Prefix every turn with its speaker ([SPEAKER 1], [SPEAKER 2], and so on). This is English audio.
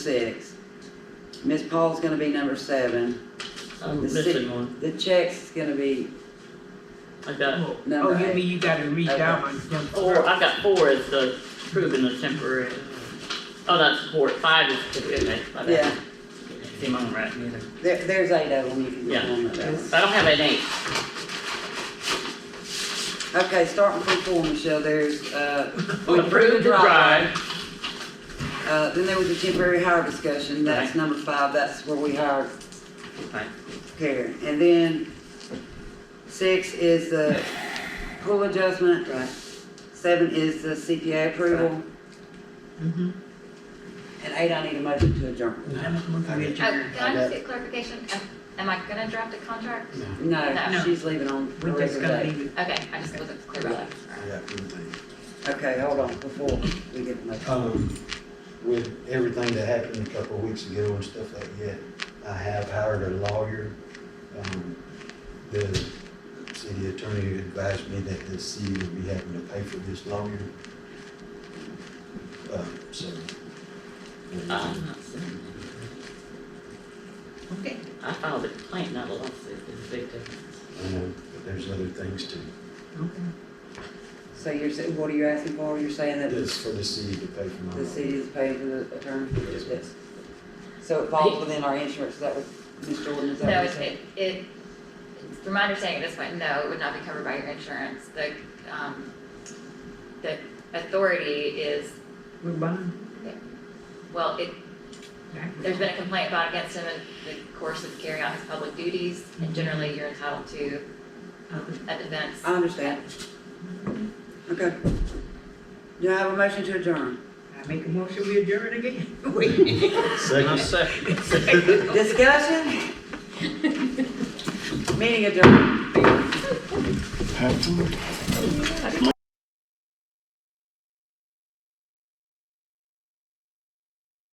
[SPEAKER 1] six. Ms. Paul's gonna be number seven.
[SPEAKER 2] I'm
[SPEAKER 1] The si-
[SPEAKER 2] missing one.
[SPEAKER 1] The check's gonna be
[SPEAKER 2] I got,
[SPEAKER 3] Oh,
[SPEAKER 1] Number
[SPEAKER 3] you
[SPEAKER 1] eight.
[SPEAKER 3] mean you gotta read down on them
[SPEAKER 2] four, I got four as the proven the temporary. Oh, that's four, five is temporary, my
[SPEAKER 1] Yeah.
[SPEAKER 2] bad. See, I'm on right neither.
[SPEAKER 1] There, there's eight of them, you can
[SPEAKER 2] Yeah.
[SPEAKER 1] get one of those.
[SPEAKER 2] I don't have an eight.
[SPEAKER 1] Okay, starting from four, Michelle, there's, uh,
[SPEAKER 2] Approved the drive.
[SPEAKER 1] uh, then there was a temporary hire discussion, that's
[SPEAKER 2] Right.
[SPEAKER 1] number five, that's where we hired
[SPEAKER 2] Right.
[SPEAKER 1] Karen. And then six is the pool adjustment,
[SPEAKER 2] Right.
[SPEAKER 1] seven is the CPA approval,
[SPEAKER 3] Mhm.
[SPEAKER 1] and eight, I need a motion to adjourn.
[SPEAKER 3] I'm a movie
[SPEAKER 4] Oh,
[SPEAKER 3] adjourn.
[SPEAKER 4] Can I just get clarification? Am- Am I gonna draft a contract?
[SPEAKER 1] No,
[SPEAKER 4] No.
[SPEAKER 1] she's leaving on a
[SPEAKER 3] We're just
[SPEAKER 1] regular
[SPEAKER 3] gonna
[SPEAKER 1] day.
[SPEAKER 3] leave it.
[SPEAKER 4] Okay, I just wasn't clear about that. All right.
[SPEAKER 5] Yeah, everything.
[SPEAKER 1] Okay, hold on, before we get the motion.
[SPEAKER 5] Um, with everything that happened a couple of weeks ago and stuff like that, I have hired a lawyer. Um, the city attorney advised me that the city would be having to pay for this lawyer. Uh, so.
[SPEAKER 2] Uh, I'm not seeing it. Okay, I filed a complaint, not a lawsuit, it's a big difference.
[SPEAKER 5] I know, but there's other things too.
[SPEAKER 1] So you're saying, what are you asking for? You're saying that
[SPEAKER 5] It's for the city to pay for my.
[SPEAKER 1] the city is paying for the attorney?
[SPEAKER 5] Yes, ma'am.
[SPEAKER 1] Yes. So it falls within our insurance, is that what, Ms. Jordan, is that
[SPEAKER 4] No,
[SPEAKER 1] what you're
[SPEAKER 4] it,
[SPEAKER 1] saying?
[SPEAKER 4] it, it- from my understanding at this point, no, it would not be covered by your insurance. The, um, the authority is,
[SPEAKER 3] We're buying.
[SPEAKER 4] well, it, there's been a complaint brought against him in the course of carrying out his public duties, and generally you're entitled to
[SPEAKER 3] Uh,
[SPEAKER 4] a defense.
[SPEAKER 1] I understand. Okay. Do I have a motion to adjourn?
[SPEAKER 3] I make a motion, we adjourn again.
[SPEAKER 5] Second.
[SPEAKER 1] Discussion? Meeting adjourned.